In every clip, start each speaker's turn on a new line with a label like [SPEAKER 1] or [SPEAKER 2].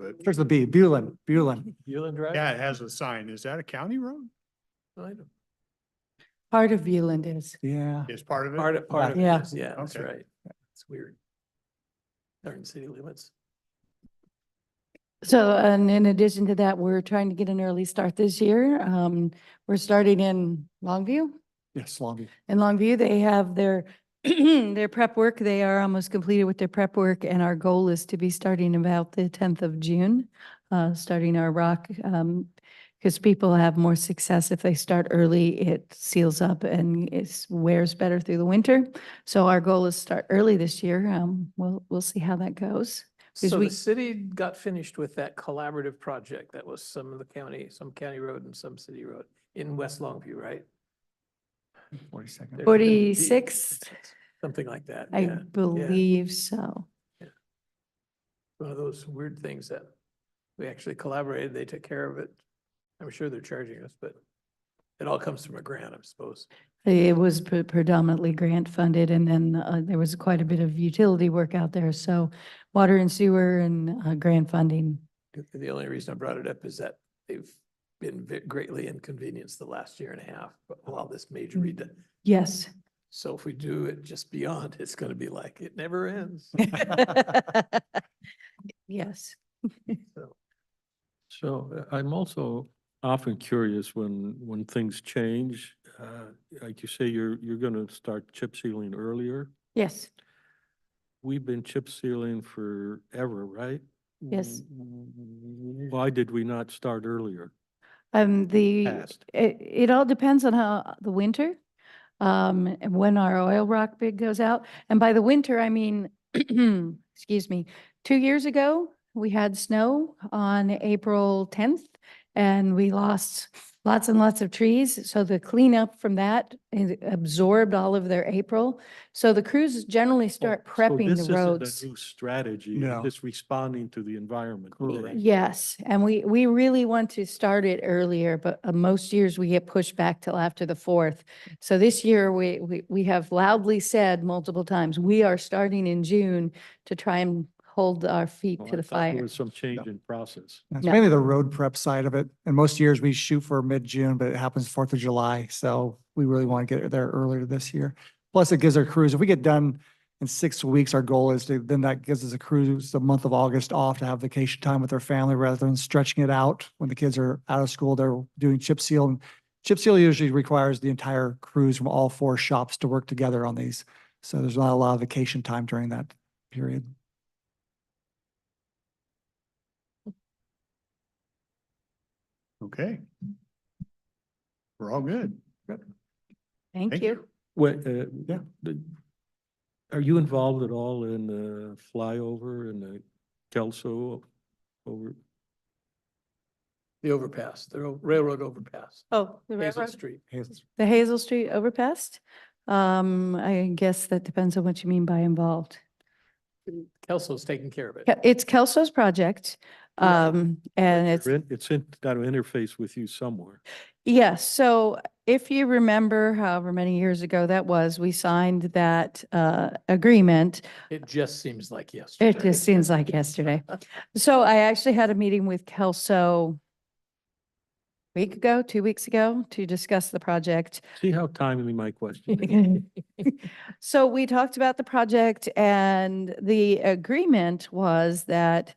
[SPEAKER 1] that,
[SPEAKER 2] Starts with B, Bulin, Bulin.
[SPEAKER 3] Yulin Drive?
[SPEAKER 1] yeah, it has a sign. Is that a county road?
[SPEAKER 3] Kind of.
[SPEAKER 4] Part of Beeland is.
[SPEAKER 2] Yeah.
[SPEAKER 1] Is part of it?
[SPEAKER 3] Part of, part of it
[SPEAKER 4] Yeah.
[SPEAKER 3] is, yeah, that's
[SPEAKER 1] Okay.
[SPEAKER 3] right. It's weird. They're in city limits.
[SPEAKER 4] So, and in addition to that, we're trying to get an early start this year. Um, we're starting in Longview.
[SPEAKER 2] Yes, Longview.
[SPEAKER 4] In Longview, they have their, their prep work. They are almost completed with their prep work and our goal is to be starting about the tenth of June, uh, starting our rock. Um, because people have more success if they start early. It seals up and it wears better through the winter. So our goal is start early this year. Um, we'll, we'll see how that goes. Because
[SPEAKER 3] So
[SPEAKER 4] we-
[SPEAKER 3] the city got finished with that collaborative project that was some of the county, some county road and some city road in West Longview, right?
[SPEAKER 2] Forty second.
[SPEAKER 3] They're- they're deep,
[SPEAKER 4] 46th.
[SPEAKER 3] Something like that,
[SPEAKER 4] I
[SPEAKER 3] yeah.
[SPEAKER 4] believe so.
[SPEAKER 3] One of those weird things that we actually collaborated, they took care of it. I'm sure they're charging us, but it all comes from a grant, I suppose.
[SPEAKER 4] It was pre- predominantly grant funded and then uh, there was quite a bit of utility work out there. So water and sewer and uh, grant funding.
[SPEAKER 3] The only reason I brought it up is that they've been ve- greatly inconvenienced the last year and a half, but while this major
[SPEAKER 4] Mm.
[SPEAKER 3] redo.
[SPEAKER 4] Yes.
[SPEAKER 3] So if we do it just beyond, it's gonna be like, it never ends.
[SPEAKER 4] Yes.
[SPEAKER 3] So,
[SPEAKER 5] So uh, I'm also often curious when, when things change. uh, Like you say, you're, you're going to start chip sealing earlier.
[SPEAKER 4] Yes.
[SPEAKER 5] We've been chip sealing forever, right?
[SPEAKER 4] Yes.
[SPEAKER 5] Why did we not start earlier?
[SPEAKER 4] Um, the,
[SPEAKER 5] Past.
[SPEAKER 4] it, it all depends on how the winter, um, and when our oil rock bid goes out. And by the winter, I mean, excuse me, two years ago, we had snow on April tenth and we lost lots and lots of trees. So the cleanup from that it absorbed all of their April. So the crews generally start
[SPEAKER 5] Oh, so
[SPEAKER 4] prepping
[SPEAKER 5] this
[SPEAKER 4] the
[SPEAKER 5] isn't a
[SPEAKER 4] roads.
[SPEAKER 5] New strategy, you're
[SPEAKER 2] No.
[SPEAKER 5] just responding to the environment.
[SPEAKER 2] Correct.
[SPEAKER 5] today.
[SPEAKER 4] Yes, and we, we really want to start it earlier, but uh, most years we get pushed back till after the fourth. So this year, we, we, we have loudly said multiple times, we are starting in June to try and hold our feet
[SPEAKER 5] Well, Oh, I
[SPEAKER 4] to the
[SPEAKER 5] thought There
[SPEAKER 4] fire.
[SPEAKER 5] was some change in process.
[SPEAKER 2] It's
[SPEAKER 4] No.
[SPEAKER 2] mainly the road prep side of it. And most years we shoot for mid-June, but it happens Fourth of July. So we really want to get it there earlier this year. Plus it gives our crews, if we get done in six weeks, our goal is to, then that gives us a cruise the month of August off to have vacation time with their family rather than stretching it out. When the kids are out of school, they're doing chip seal. and Chip seal usually requires the entire crews from all four shops to work together on these. So there's not a lot of vacation time during that period.
[SPEAKER 1] Okay. We're all good.
[SPEAKER 4] Thank
[SPEAKER 1] Thank
[SPEAKER 4] you.
[SPEAKER 5] What, uh,
[SPEAKER 2] Yeah.
[SPEAKER 5] the- are you involved at all in the flyover and the Kelso over?
[SPEAKER 3] The overpass, the ro- railroad overpass,
[SPEAKER 4] Oh, the
[SPEAKER 3] Hazel Street.
[SPEAKER 2] Hazel's-
[SPEAKER 4] The Hazel Street overpass? Um, I guess that depends on what you mean by involved.
[SPEAKER 3] Kelso's taking care of it.
[SPEAKER 4] Ke- It's Kelso's project,
[SPEAKER 3] Yeah.
[SPEAKER 4] um, and it's.
[SPEAKER 5] You're in- It's in, got to interface with you somewhere.
[SPEAKER 4] Yes, so if you remember however many years ago that was, we signed that uh agreement.
[SPEAKER 3] It just seems like yesterday.
[SPEAKER 4] It just seems like yesterday. So I actually had a meeting with Kelso a week ago, two weeks ago, to discuss the project.
[SPEAKER 5] See how timely my question is?
[SPEAKER 4] Mm-hmm. So we talked about the project and the agreement was that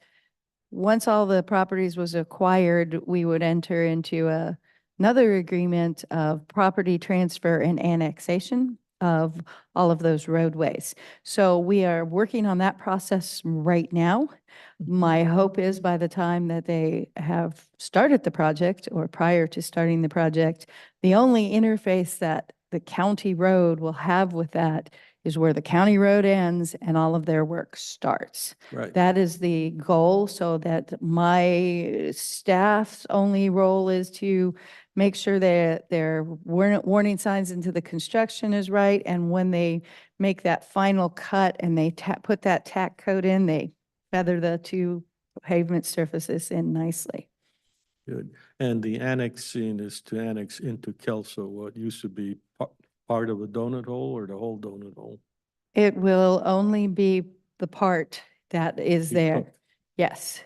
[SPEAKER 4] once all the properties was acquired, we would enter into a- another agreement of property transfer and annexation of all of those roadways. So we are working on that process right now. My hope is by the time that they have started the project or prior to starting the project, the only interface that the county road will have with that is where the county road ends and all of their work starts.
[SPEAKER 5] Right.
[SPEAKER 4] That is the goal, so that my staff's only role is to make sure that their warn- warning signs into the construction is right. And when they make that final cut and they ta- put that tack coat in, they feather the two pavement surfaces in nicely.
[SPEAKER 5] Good. And the annexing is to annex into Kelso what used to be pa- part of a donut hole or the whole donut hole?
[SPEAKER 4] It will only be the part that is
[SPEAKER 5] You
[SPEAKER 4] there.
[SPEAKER 5] took.
[SPEAKER 4] Yes,